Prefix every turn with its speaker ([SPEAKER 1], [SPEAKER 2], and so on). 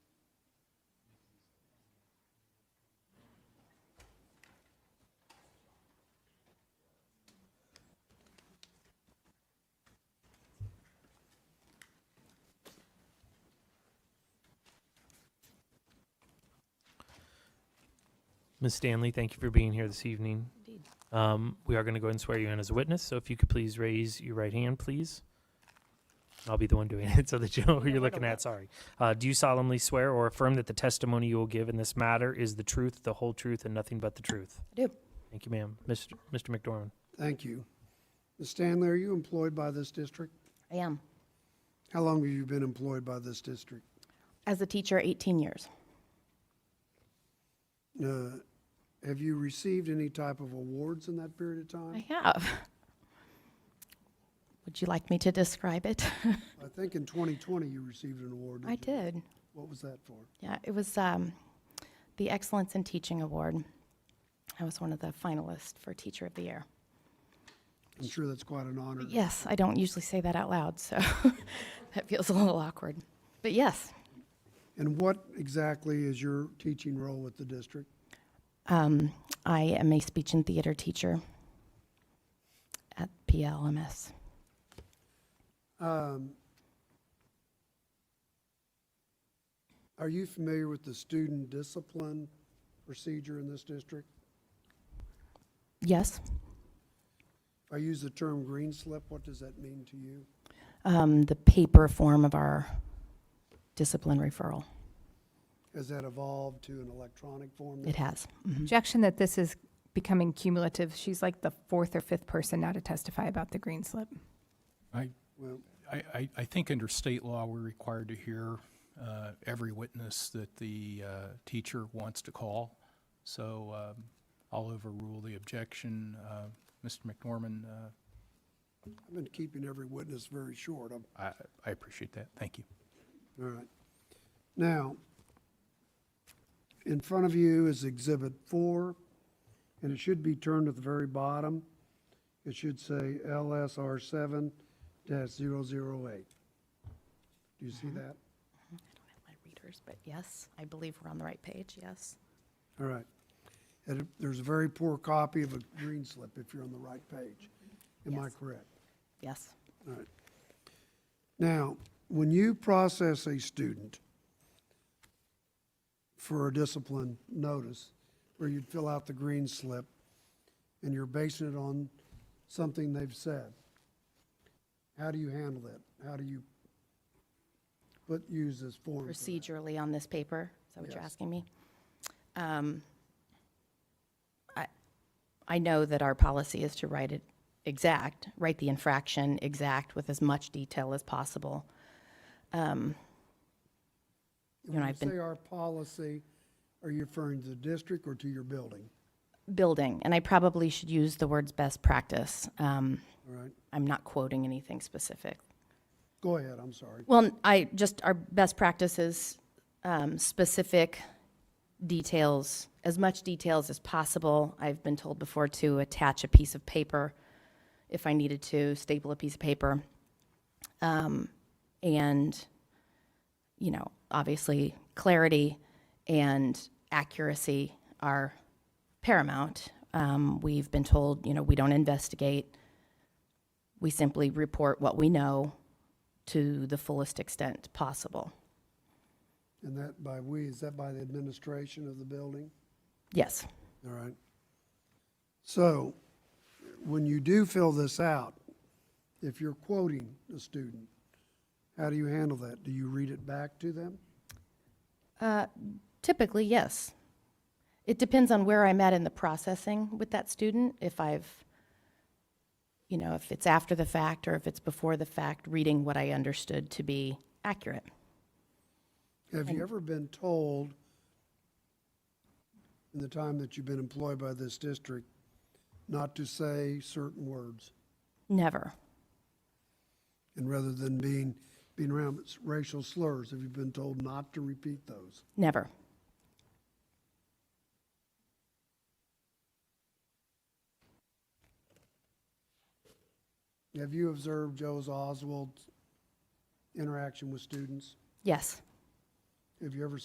[SPEAKER 1] Ms. Stanley, thank you for being here this evening.
[SPEAKER 2] Indeed.
[SPEAKER 1] Um, we are going to go ahead and swear you in as a witness, so if you could please raise your right hand, please. I'll be the one doing it so that you know who
[SPEAKER 2] Yeah,
[SPEAKER 1] you're
[SPEAKER 2] right
[SPEAKER 1] looking
[SPEAKER 2] away.
[SPEAKER 1] at, sorry. Uh, do you solemnly swear or affirm that the testimony you will give in this matter is the truth, the whole truth, and nothing but the truth?
[SPEAKER 2] I do.
[SPEAKER 1] Thank you, ma'am. Mr. Mr. McDormand?
[SPEAKER 3] Thank you. Ms. Stanley, are you employed by this district?
[SPEAKER 2] I am.
[SPEAKER 3] How long have you been employed by this district?
[SPEAKER 2] As a teacher, 18 years.
[SPEAKER 3] Uh, Have you received any type of awards in that period of time?
[SPEAKER 2] I have. Would you like me to describe it?
[SPEAKER 3] I think in 2020 you received an award.
[SPEAKER 2] I
[SPEAKER 3] you?
[SPEAKER 2] did.
[SPEAKER 3] What was that for?
[SPEAKER 2] Yeah, it was um, the Excellence in Teaching Award. I was one of the finalists for Teacher of the Year.
[SPEAKER 3] I'm sure that's quite an honor.
[SPEAKER 2] Yes, I don't usually say that out loud, so that feels a little awkward. But yes,
[SPEAKER 3] And what exactly is your teaching role with the district?
[SPEAKER 2] um, I am a speech and theater teacher at PLMS.
[SPEAKER 3] Um, Are you familiar with the student discipline procedure in this district?
[SPEAKER 2] Yes,
[SPEAKER 3] I use the term green slip. What does that mean to you?
[SPEAKER 2] um, the paper form of our discipline referral.
[SPEAKER 3] Has that evolved to an electronic form?
[SPEAKER 2] It has. Mhm.
[SPEAKER 4] Objection that this is becoming cumulative. She's like the fourth or fifth person now to testify about the green slip.
[SPEAKER 3] Well,
[SPEAKER 5] I, I, I think under state law, we're required to hear uh, every witness that the uh, teacher wants to call. So um, I'll overrule the objection. Uh, Mr. McNorman, uh,
[SPEAKER 3] I've been keeping every witness very short. I'm,
[SPEAKER 5] I, I appreciate that. Thank you.
[SPEAKER 3] all right. Now, in front of you is Exhibit Four, and it should be turned at the very bottom. It should say LSR seven 8 Do you see
[SPEAKER 2] Mm-hmm.
[SPEAKER 3] that?
[SPEAKER 2] My readers, but yes, I believe we're on the right page, yes.
[SPEAKER 3] All right. And it- there's a very poor copy of a green slip if you're on the right page. Am I
[SPEAKER 2] Yes.
[SPEAKER 3] correct?
[SPEAKER 2] Yes.
[SPEAKER 3] All right. Now, when you process a student for a discipline notice, where you'd fill out the green slip, and you're basing it on something they've said, how do you handle that? How do you put, use this form? for that?
[SPEAKER 2] Procedurally on this paper, is that what you're
[SPEAKER 3] Yes.
[SPEAKER 2] asking me? Um, I I know that our policy is to write it exact, write the infraction exact with as much detail as possible. Um, you know,
[SPEAKER 3] And When you
[SPEAKER 2] I've been-
[SPEAKER 3] say our policy, are you referring to the district or to your building?
[SPEAKER 2] Building, and I probably should use the words best practice. Um,
[SPEAKER 3] All right,
[SPEAKER 2] I'm not quoting anything specific.
[SPEAKER 3] go ahead, I'm sorry.
[SPEAKER 2] Well, n- I, just our best practices, um, specific details, as much details as possible. I've been told before to attach a piece of paper if I needed to, staple a piece of paper. Um, and, you know, obviously clarity and accuracy are paramount. Um, we've been told, you know, we don't investigate. We simply report what we know to the fullest extent possible.
[SPEAKER 3] And that by we, is that by the administration of the building?
[SPEAKER 2] Yes.
[SPEAKER 3] All right. So when you do fill this out, if you're quoting a student, how do you handle that? Do you read it back to them?
[SPEAKER 2] Uh, Typically, yes. It depends on where I'm at in the processing with that student. If I've, you know, if it's after the fact or if it's before the fact, reading what I understood to be accurate.
[SPEAKER 3] Have you ever been told in the time that you've been employed by this district not to say certain words?
[SPEAKER 2] Never.
[SPEAKER 3] And rather than being, being around racial slurs, have you been told not to repeat those?
[SPEAKER 2] Never.
[SPEAKER 3] Have you observed Joe's Oswald's interaction with students?
[SPEAKER 2] Yes.
[SPEAKER 3] Have you ever